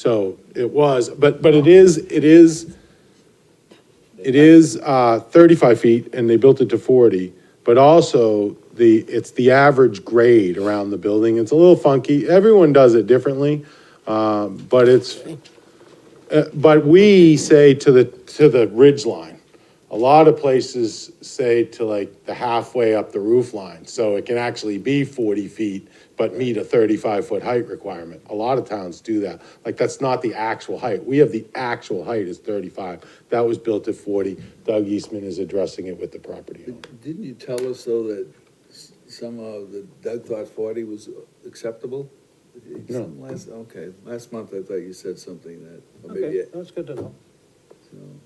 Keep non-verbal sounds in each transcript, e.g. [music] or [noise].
So it was, but, but it is, it is, it is uh, 35 feet, and they built it to 40, but also the, it's the average grade around the building. It's a little funky. Everyone does it differently, um, but it's, uh, but we say to the, to the ridge line. A lot of places say to like the halfway up the roof line, so it can actually be 40 feet, but meet a 35-foot height requirement. A lot of towns do that. Like, that's not the actual height. We have the actual height is 35. That was built at 40. Doug Eastman is addressing it with the property owner. Didn't you tell us though that s- somehow that Doug thought forty was acceptable? Something Last, okay, last month I thought you said something that, or maybe, Okay, it- that's good to know.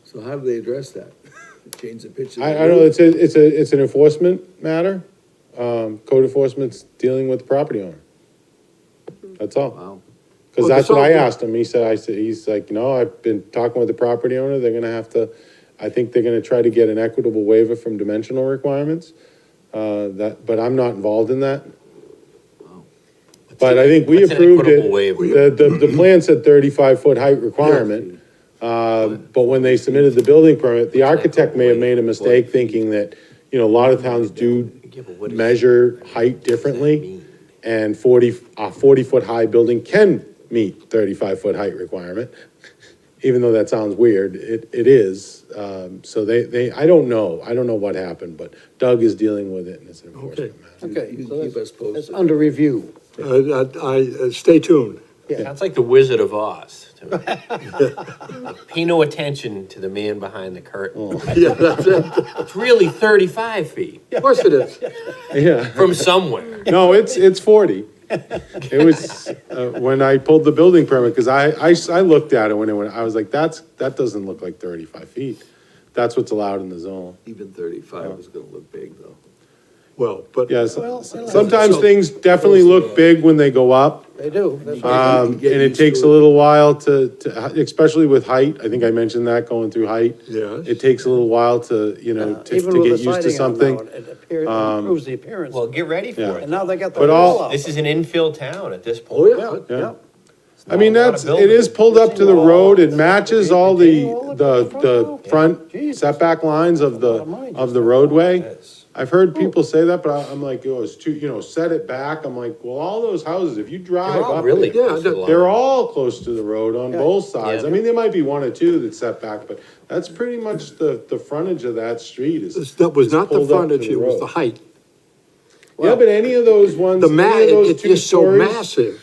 so how do they address that? [laughs] Change the pitch of the I, roof? I know, it's a, it's a, it's an enforcement matter. Um, Code enforcement's dealing with the property owner. That's all. Wow, Because Well, the that's what I salt- asked him. He said, I said, he's like, no, I've been talking with the property owner. They're gonna have to, I think they're gonna try to get an equitable waiver from dimensional requirements. Uh, that, but I'm not involved in that. But I think we What's an approved it. equitable waiver? The, the, the plan said thirty-five foot height requirement. Uh, but when they submitted the building permit, the architect may have made a mistake thinking that, you know, a lot of towns do Yeah, but what is- measure height What does differently. that mean? And forty, a forty-foot-high building can meet thirty-five-foot height requirement. Even though that sounds weird, it, it is. Um, so they, they, I don't know, I don't know what happened, but Doug is dealing with it and it's an enforcement matter. Okay, You so keep that's- us posted. that's under review. Uh, I, I- uh, stay tuned. [laughs] Sounds like the Wizard of Oz. to me. [laughs] Pay no attention to the man behind the curtain. Yeah, [laughs] that's it. It's really thirty-five feet Of course it is. Yeah, from somewhere. no, it's, it's forty. It was, uh, when I pulled the building permit, because I, I, s- I looked at it when it went, I was like, that's, that doesn't look like thirty-five feet. That's what's allowed in the zone. even thirty-five is gonna look big though. Well, but. Yes, Well, so- sometimes things definitely look big when they go up. They do. that's right. Um, and it takes a little while to, to, especially with height, I think I mentioned that, going through height. Yes. It takes a little while to, you know, to, Even to with the get used to siding on something. now, It appears, it improves the appearance. Well, get ready for Yeah. And it. now they got the But all- wall up. This is an infill town at this Oh, point. yeah. Yeah. It's I mean, not a lot that's, of it is buildings. pulled up to the Retaining road, it walls. matches all the, Retaining wall, the, look at the the front wall. front setback lines of That's a the, lot of money of just the for roadway. I've heard people say that, but I- I'm like, oh, it's too, you know, set it back, I'm like, well, all those houses, if you drive They're all up really it, Yeah, close to the line. They're all close to the road on both sides. I Yeah. mean, there might be one or two that's set back, but that's pretty much the, the frontage of that street This- is. That was is not the pulled up to frontage, it was road. the height. Yeah, but any of those ones, The ma, any of those it- two it's so stories, massive.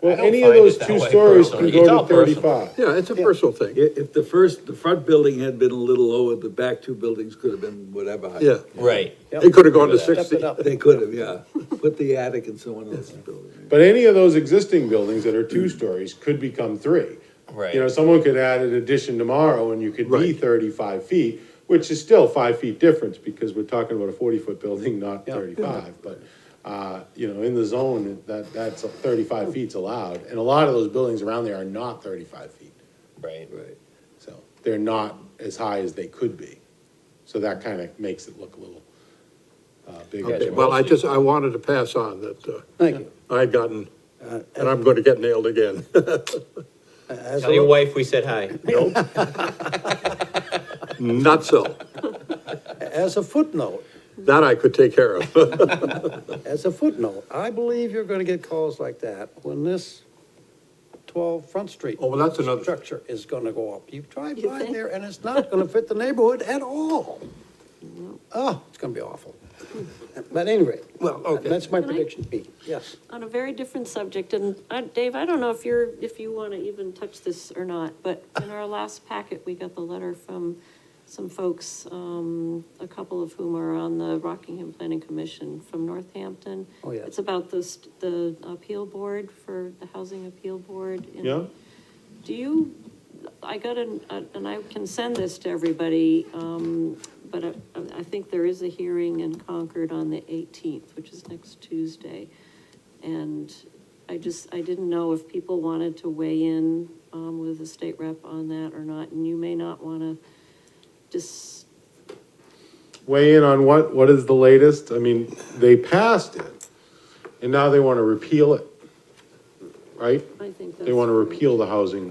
I well, don't any of find it those that two way stories can personally. It's go all to thirty-five. Yeah, it's a personal thing. If, if the first, the front building had been a little lower, the back two buildings could have been whatever height. Yeah. Right. It could have gone to Step Step 60. it up. They could have, yeah, put the attic in someone else's building. But any of those existing buildings that are Mm. two stories could become three. Right. You know, someone could add an addition tomorrow and you could be Right. thirty-five feet, which is still five feet difference because we're talking about a forty-foot building, [laughs] not thirty-five, but, uh, you know, in the zone, that, that's thirty-five feet's allowed. And a lot of those buildings around there are not thirty-five feet, Right. Right. so they're not as high as they could be. So that kind of makes it look a little, uh, bigger. as Okay, well. Well, I just, I wanted to pass on that uh, Thank you. I had gotten, Uh, and I'm going to get nailed [laughs] again. As Tell your a, wife we said hi. [laughs] Not so. as a footnote, That I could take care of. [laughs] Oh, as a footnote, I believe you're gonna get calls like that when this twelve Front Street. Oh, well, that's another- Structure is gonna go up. You drive You by think? there and it's not gonna fit the neighborhood at all. Oh, it's gonna be awful. But anyway, Well, that's my Can I- prediction, B, yes. on a very different subject, and I, Dave, I don't know if you're, if you want to even touch this or not, but in our last packet, we got the letter from some folks, um, a couple of whom are on the Rockingham Planning Commission from Northampton. Oh, yeah. It's about the, st- the appeal board for the Housing Appeal Board. in- Yeah. Do you, I got an, and I can send this to everybody, um, but I, I think there is a hearing in Concord on the eighteenth, which is next Tuesday. And I just, I didn't know if people wanted to weigh in, um, with the state rep on that or not, and you may not wanna just, weigh in on what, what is the latest? I mean, they passed it, and now they want to repeal it, right? I think that's. They want to correct. repeal the housing